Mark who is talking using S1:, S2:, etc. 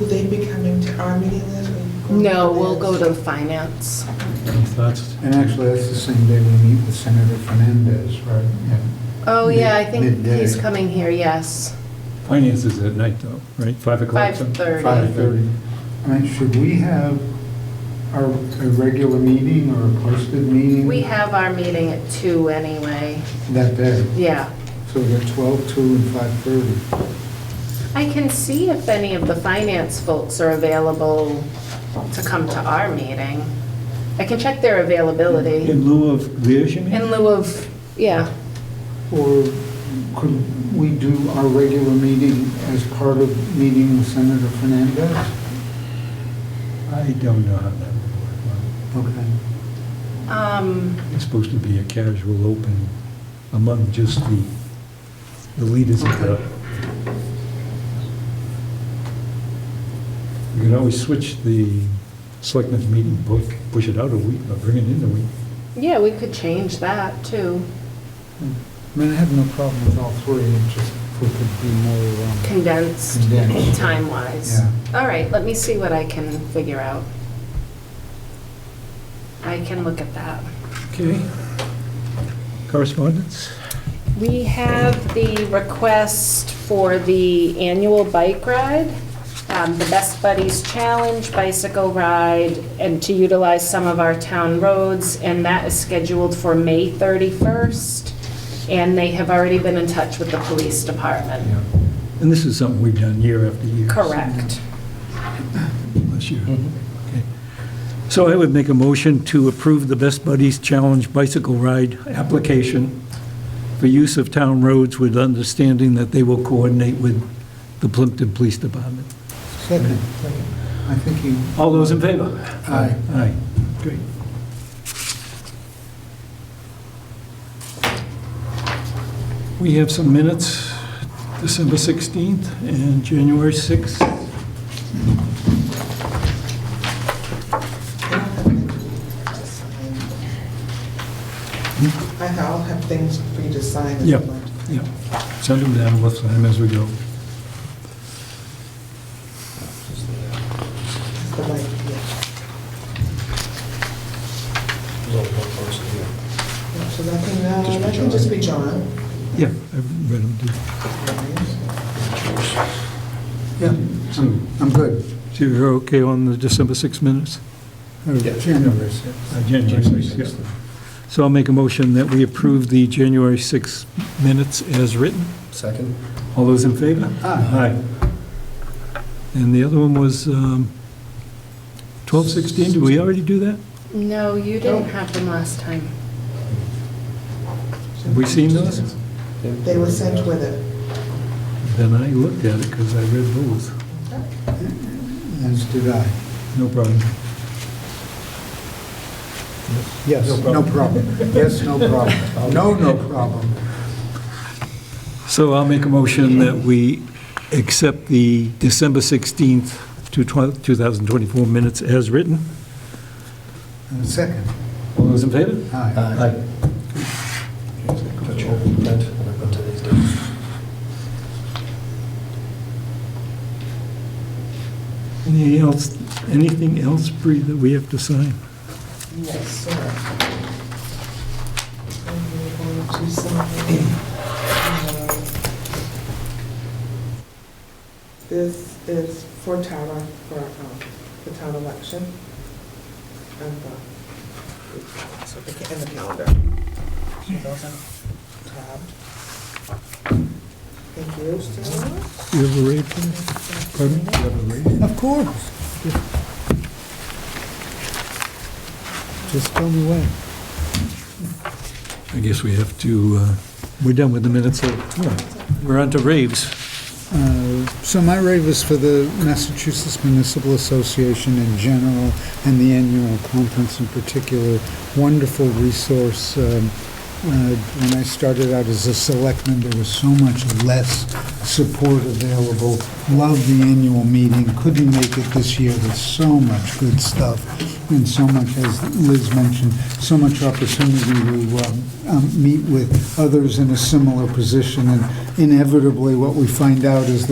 S1: Will they be coming to our meeting this week?
S2: No, we'll go to finance.
S3: That's,
S4: And actually, that's the same day we meet with Senator Fernandez, right? Yeah.
S2: Oh, yeah, I think
S4: Midday.
S2: he's coming here, yes.
S3: finance is at night though, right? Five o'clock? so-
S2: 5:30.
S4: 5:30. I mean, should we have our, a regular meeting or a posted meeting?
S2: We have our meeting at two anyway,
S4: That day,
S2: yeah.
S4: so we got 12, 2, and 5:30.
S2: I can see if any of the finance folks are available to come to our meeting. I can check their availability
S3: In lieu of theirs, you mean?
S2: in lieu of, yeah,
S4: Or could we do our regular meeting as part of meeting with Senator Fernandez?
S3: I don't know how that would work. Well,
S4: Okay.
S2: um,
S3: It's supposed to be a casual open among just the, the leaders of the... You can always switch the selectmen's meeting book, push it out a week, or bring it in a week.
S2: yeah, we could change that too.
S4: I mean, I have no problem with all three, it just if we could be more um,
S2: condensed
S4: Condensed.
S2: time-wise.
S4: Yeah.
S2: All right, let me see what I can figure out. I can look at that.
S3: Okay. Correspondence?
S2: We have the request for the annual bike ride, um, the Best Buddies Challenge bicycle ride, and to utilize some of our town roads, and that is scheduled for May 31st. And they have already been in touch with the police department.
S4: Yeah.
S3: And this is something we've done year after year. so-
S2: Correct.
S3: Bless you. Okay. So I would make a motion to approve the Best Buddies Challenge bicycle ride application for use of town roads with understanding that they will coordinate with the Plimpton Police Department.
S4: Second, I think you.
S3: All those in favor?
S4: Aye.
S3: Aye. Great. We have some minutes, December 16th and January 6th.
S1: I- I'll have things for you to sign. as
S3: Yep.
S1: well.
S3: Yeah, send them down, we'll sign them as we go.
S1: It's the right, yeah. Yeah, So that can, uh, that can just be John.
S3: Yeah, I've read them, too.
S4: Yeah, I'm, I'm good.
S3: So you're okay on the December 6 minutes?
S4: Or January 6th.
S3: Uh, January 6, yeah. So I'll make a motion that we approve the January 6 minutes as written.
S5: Second?
S3: All those in favor?
S4: Aye.
S3: And the other one was um, 12/16, did we already do that?
S2: No, you didn't
S4: Oh.
S2: have them last time.
S3: Have we seen those?
S1: They were sent with it.
S3: Then I looked at it because I read those.
S4: As did I.
S3: No problem.
S4: Yes, no problem. Yes, no problem. No, no problem.
S3: So I'll make a motion that we accept the December 16th, to 12 2024 minutes as written.
S4: And second,
S3: All those in favor?
S4: aye.
S5: Got your print, and I've got today's date.
S3: Anything else, anything else, Bree, that we have to sign?
S1: Yes, sir. And we're going to sign, uh, This is for Tara, for um, the town election. And the, so the ca- and the calendar. So those are tabbed. Thank you, Sarah.
S3: Do you have a rate for this? Pardon me?
S4: Of course. Just tell me when.
S3: I guess we have to, uh, we're done with the minutes, so we're on to raves.
S4: Uh, So my rave is for the Massachusetts Municipal Association in general and the annual conference in particular. Wonderful resource. Um, uh, When I started out as a selectman, there was so much less support available. Loved the annual meeting, couldn't make it this year, there's so much good stuff and so much, as Liz mentioned, so much opportunity to um, um, meet with others in a similar position. And inevitably, what we find out is